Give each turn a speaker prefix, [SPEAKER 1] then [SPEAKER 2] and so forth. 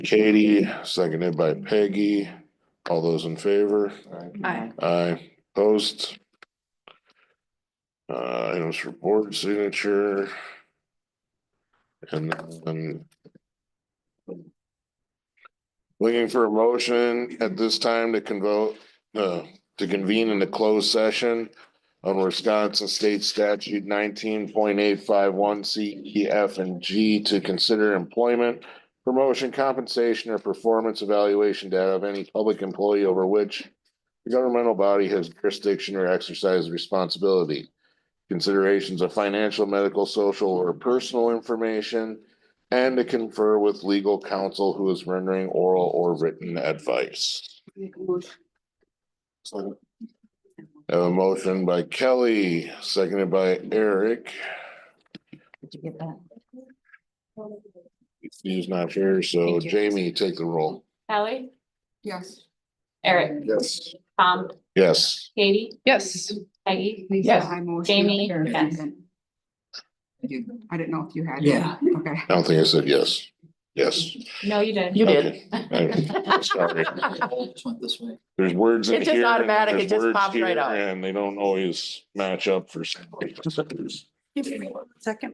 [SPEAKER 1] Katie, seconded by Peggy. All those in favor?
[SPEAKER 2] Aye.
[SPEAKER 1] Aye, opposed. Uh, items for board signature. And then. Looking for a motion at this time to convoke, uh, to convene in a closed session. On Wisconsin State Statute nineteen point eight five one C, E, F, and G to consider employment. Promotion, compensation, or performance evaluation data of any public employee over which. The governmental body has jurisdiction or exercise responsibility. Considerations of financial, medical, social, or personal information. And to confer with legal counsel who is rendering oral or written advice. I have a motion by Kelly, seconded by Eric.
[SPEAKER 2] Did you get that?
[SPEAKER 1] He's not here, so
[SPEAKER 2] Thank you.
[SPEAKER 1] Jamie, take the roll.
[SPEAKER 3] Kelly,
[SPEAKER 2] Yes.
[SPEAKER 3] Eric,
[SPEAKER 1] Yes.
[SPEAKER 3] Tom,
[SPEAKER 1] Yes.
[SPEAKER 3] Katie,
[SPEAKER 4] Yes.
[SPEAKER 3] Peggy,
[SPEAKER 4] Yes.
[SPEAKER 3] Jamie, yes.
[SPEAKER 2] I didn't know if you had.
[SPEAKER 4] Yeah.
[SPEAKER 2] Okay.
[SPEAKER 1] I don't think I said yes. Yes.
[SPEAKER 3] No, you didn't.
[SPEAKER 4] You did.
[SPEAKER 1] Okay. I'm Sorry.
[SPEAKER 4] Just went this way.
[SPEAKER 1] There's words in
[SPEAKER 4] It's just
[SPEAKER 1] here. and
[SPEAKER 4] automatic, it
[SPEAKER 1] there's
[SPEAKER 4] just
[SPEAKER 1] words
[SPEAKER 4] pops right
[SPEAKER 1] here,
[SPEAKER 4] out.
[SPEAKER 1] And they don't always match up for some reason.
[SPEAKER 2] Second.